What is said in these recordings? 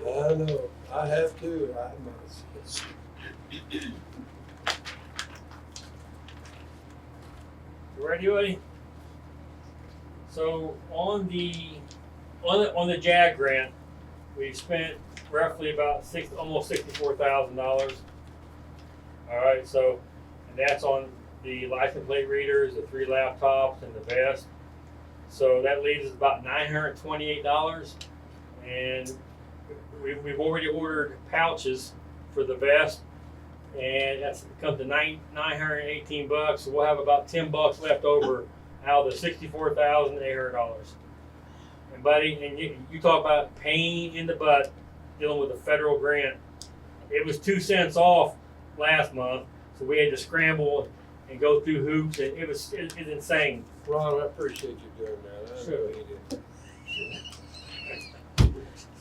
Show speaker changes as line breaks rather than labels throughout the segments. I know, I have to, I know, it's, it's,
You ready, buddy? So on the on the, on the JAG grant, we've spent roughly about six almost sixty four thousand dollars. All right, so and that's on the license plate readers, the three laptops, and the vest. So that leaves us about nine hundred twenty eight dollars, and we, we've already ordered pouches for the vest and that's come to nine nine hundred and eighteen bucks. So we'll have about ten bucks left over out of the sixty four thousand eight hundred dollars. And buddy, and you you talk about pain in the butt dealing with a federal grant. It was two cents off last month, so we had to scramble and go through hoops, and it was it, it's insane.
Ron, I appreciate you doing that, I
Sure.
really do.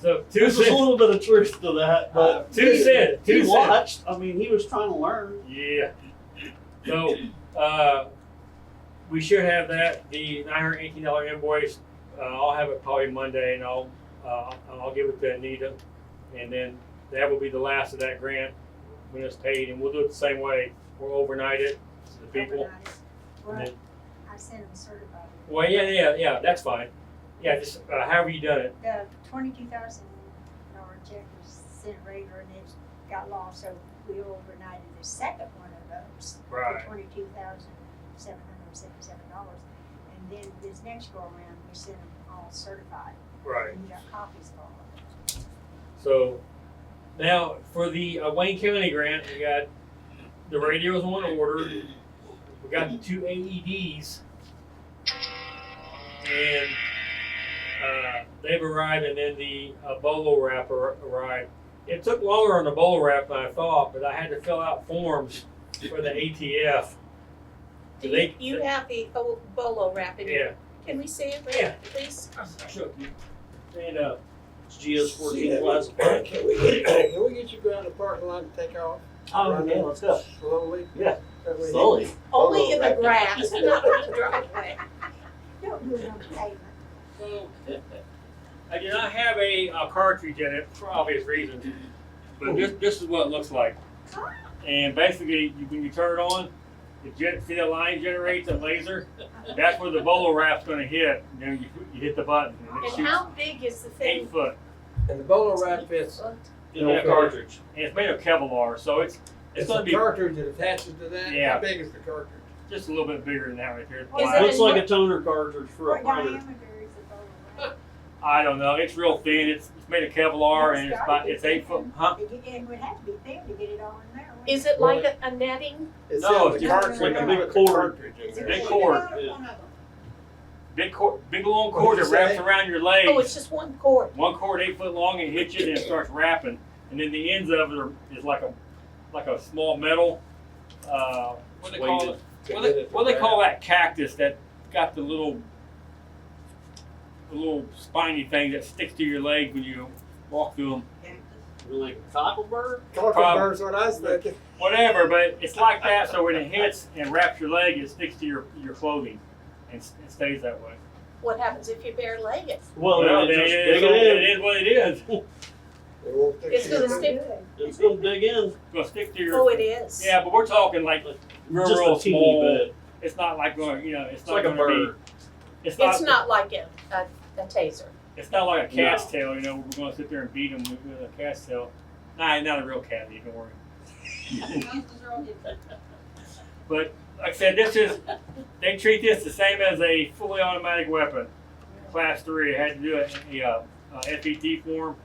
So two
There's a
cents, Uh,
little bit of truth to that, but
two
he-
cents,
He
two cents.
watched. I mean, he was trying to learn.
Yeah. So, uh, we should have that, the nine hundred eighteen dollar invoice, uh, I'll have it probably Monday and I'll, uh, I'll give it to Anita. And then that will be the last of that grant when it's paid and we'll do it the same way, we'll overnight it to the people.
overnight it.
And
Well,
then-
I sent them certified.
Well, yeah, yeah, yeah, that's fine. Yeah, just, uh, however you done it,
The twenty-two thousand dollar check was sent later and it got lost, so we overnighted the second one of those.
Right.
Twenty-two thousand seven hundred seventy-seven dollars. And then this next go around, we sent them all certified.
right.
We got copies of all of them.
So now for the uh, Wayne County grant, we got the radios on order. We got the two E AEDs, and uh, they've arrived, and then the uh, bolo wrap ar- arrived. It took longer on the bolo wrap than I thought, but I had to fill out forms for the ATF.
Do
They-
you, you have the bo- bolo wrap in
Yeah,
here? Can we see it,
Yeah.
please?
shook. And uh,
It's GS
See,
fourteen
that-
Plaza.
Can we, get- can we get you down to the parking lot and take off
Oh, okay, let's go.
slowly?
Yeah.
That way-
Slowly.
Only in
Bolo
the
wrap.
grass, not on the driveway.
Don't do it on the pavement.
So, I do not have a, uh cartridge in it for obvious reasons, but this, this is what it looks like. And basically, you, when you turn it on, the gen- see the line generates a laser. That's where the bolo wrap's going to hit. And then you, you hit the button and it
And
shoots
how big is the
eight
thing?
foot.
And the bolo wrap fits.
In that cartridge.
And it's made of Kevlar, so it's it's
It's
going
the
to be
cartridge that attaches to that,
Yeah.
how big is the cartridge?
just a little bit bigger than that right here. It's
Is
black.
it
Looks like a toner cartridge for
What
a printer.
diameter is the bowling
I don't know. It's real thin. It's, it's made of Kevlar and it's about it's eight foot. Huh?
ball? It- It would have to be thin to get it all in there. wouldn't
Is it like a, a netting?
No,
in
it's
the
just
cartridge,
like a
not
big
the
cord.
cartridge in
Is
there.
it
Big
one
cord.
of them?
Yeah.
One of them.
Big cord, big long
What'd
cord
you
that wraps
say?
around your leg.
Oh, it's just one cord.
one cord eight foot long and hits you and it starts wrapping. And then the ends of it are, is like a like a small metal. Uh, what they call it?
To
What
get
they,
it to
what they
wrap.
call that cactus that got the little the little spiny thing that sticks to your leg when you walk through them.
Like a cocklebur?
Cartridge burns what I was thinking.
Whatever, but it's like that. So when it hits and wraps your leg, it sticks to your your clothing and s- it stays that way.
What happens if you bare leg it?
Well, then it
then
Oh, just
it
dig
is what-
it
it
in.
is what it is.
It won't fix
It's
it.
gonna stick.
It's gonna dig in.
It's gonna stick to your.
Oh, it is.
Yeah, but we're talking like real,
Just
real
a teeny
small.
bit.
It's not like going, you know, it's,
It's
not
like a
gonna be-
bird.
It's not,
It's not like a, a, a taser.
It's not like a cat's tail. You know, we're going to sit there and beat them with, with a cat's tail. Nah, not a real cat. You don't worry. But like I said, this is they treat this the same as a fully automatic weapon, class three. I had to do a, a, uh, uh FET form.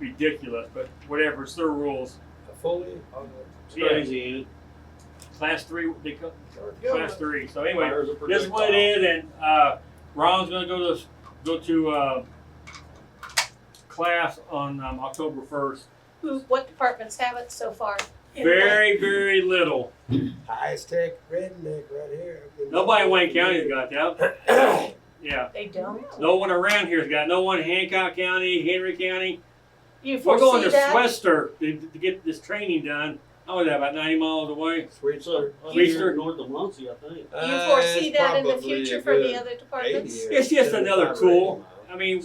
Ridiculous, but whatever. It's their rules.
A Fully on
It's
Yeah.
crazy.
Class three. They call
the.
class three. So anyway,
Fires a
This is what it is, and uh, Ron's gonna go to go to uh, class on um, October first.
Who, what departments have it so far?
Very, very little.
Highest tech redneck right here.
Nobody in Wayne County's got that. Yeah,
They don't?
no one around here's got. No one in Hancock County, Henry County.
You
We're going
foresee
to
that?
Swester to, to get this training done. How was that? About ninety miles away.
Sweet
It's up
sir.
here north of Muncie, I think.
Uh,
Uh, You foresee that in the future for the other departments?
It's just another tool. I mean,